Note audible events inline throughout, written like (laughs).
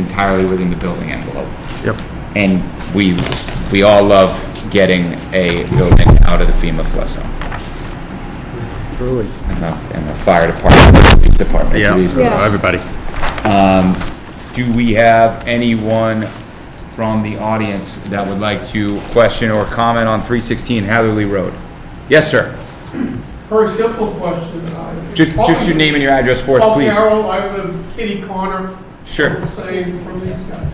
entirely within the building envelope. Yep. And we, we all love getting a building out of the FEMA flood zone. Truly. And the, and the fire department, the police department. Yeah, police- Yeah. everybody. Do we have anyone from the audience that would like to question or comment on 316 Hatherley Road? Yes, sir. Very simple question. I- Just, just your name and your address for us, Paul please. Carroll, I live Kitty Corner. Sure. Same from these guys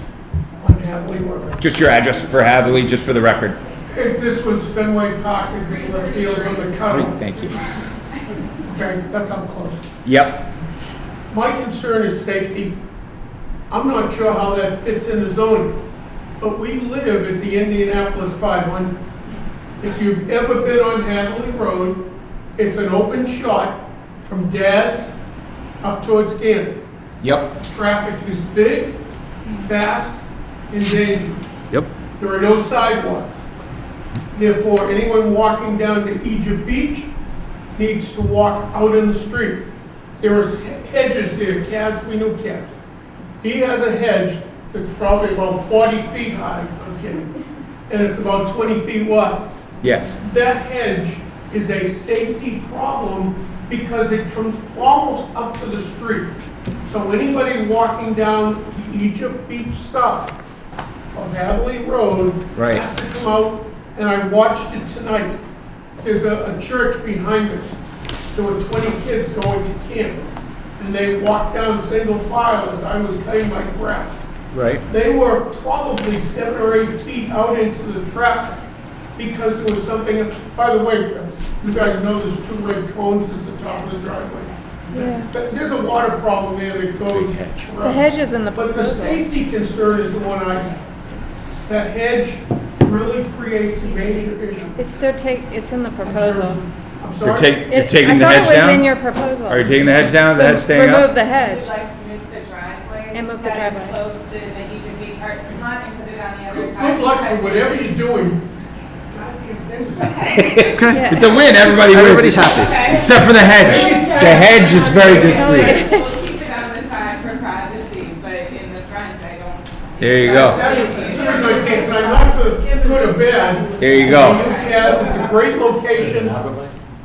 on Hadley Road. Just your address for Hatherley, just for the record. If this was Fenway Park, it'd be left field on the Three, cutoff. Thank you. Okay, that's how close. Yep, My concern is safety. I'm not sure how that fits in the zoning, but we live at the Indianapolis 500. If you've ever been on Hadley Road, it's an open shot from Dad's up towards Gannett. yep, Traffic is big, fast, and dangerous. Yep. There are no sidewalks. Therefore, anyone walking down to Egypt Beach needs to walk out in the street. There are hedges there, calves, we know calves. He has a hedge that's probably about 40 feet high, okay, and it's about 20 feet wide. yes. That hedge is a safety problem because it comes almost up to the street. So anybody walking down the Egypt Beach South of Hadley Road Right. has to come out, and I watched it tonight. There's a, a church behind us. There were 20 kids going to camp, and they walked down single file as I was cutting my grass. Right. They were probably seven or eight feet out into the traffic because there was something, by the way, you guys know there's two red cones at the top of the driveway. Yeah. But there's a water problem there that goes. The hedge is in the But the proposal. safety concern is the one I have. That hedge really creates a major issue. It's their take, it's in the proposal. I'm You're sorry. taking, you're It- taking the hedge I thought it was in down? your proposal. Are you taking the hedge down, the So hedge staying Remove up? the Would hedge. like to move the driveway. And move the that is driveway. close to the Egypt Beach Park lot and put it on the other side. Good luck to because whatever it's- you're doing. Goddamn business. Okay. It's a win, everybody wins. Everybody's happy. Okay. Except for the hedge. Okay. The hedge is very displeased. displeased. We'll keep it on the side for privacy, but in the front, I don't. There you go, That is, that's my case, and I'm not for good or bad. there you go. Yes, it's a great location.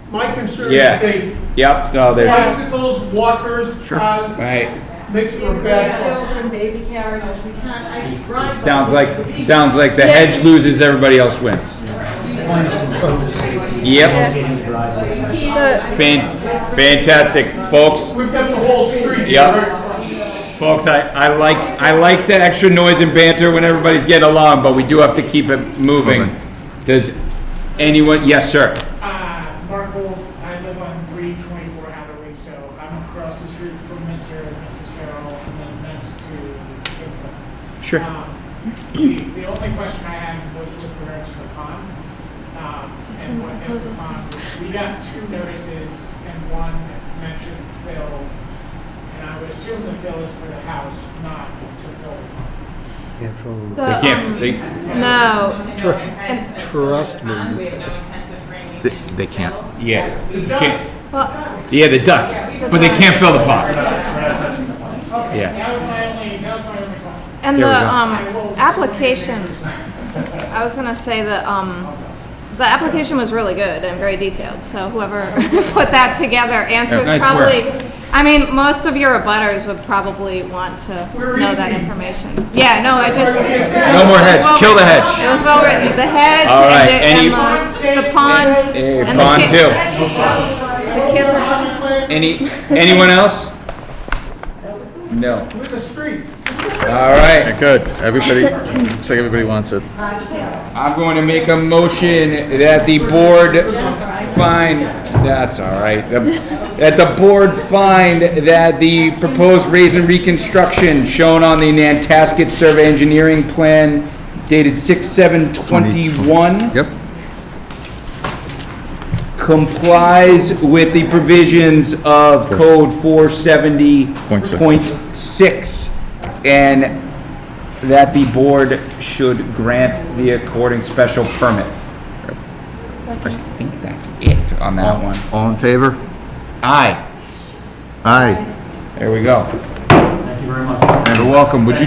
My concern Yeah. is safety. Yep, Oh, no, there's, Bicycles, walkers, cars, right. makes for a bad. Children, baby carriages, we can't, I drive. Sounds like, sounds like the hedge loses, everybody else wins. Yep, The- fan, fantastic, folks, We've got the whole street. Yep. covered. folks, I, I like, I like the extra noise and banter when everybody's getting along, but we do have to keep it moving. Does anyone, yes, sir, Uh, Mark Bowles, I live on three twenty-four Hathaway, so I'm across the street from Mr. and Mrs. Carroll, and then next to Kimberly. Sure. Um, The the only question I had was with regards to the pond. um, and what if the pond- We got two notices, and one mentioned fill, and I would assume the fill is for the house, not to fill the pond. the, they can't, um, they, No, No intents of- Trust me. We have no intents of bringing They- in they can't. fill. yeah, can't, well, yeah, the ducks, but they can't fill the pond. Yeah, That was my only, that was my only question. and There the, we go. um, application, I was gonna say that, um, the application was really good and very detailed, so whoever (laughs) put that together nice answers work. probably, I mean, most of your abutters would probably want to We're know that easy. information. Yeah, no, I just. no more hedge, kill the hedge. It was well written, the hedge All right, any- and the, and the, the pond. Eh, and the Pond ki- two. The kids are. Any, anyone else? No. With the street. All right. Good, everybody, looks like everybody wants it. I'm going to make a motion that the board find, that's all right. The- That the board find that the proposed raise and reconstruction shown on the Nantasket Survey Engineering Plan dated six seven twenty-one Yep. complies with the provisions of code four seventy Point six. point six, and that the board should grant the according special permit. I think that's it on that one. All in favor? Oh. Aye, Aye. there we go. Thank you very much. You're welcome, would you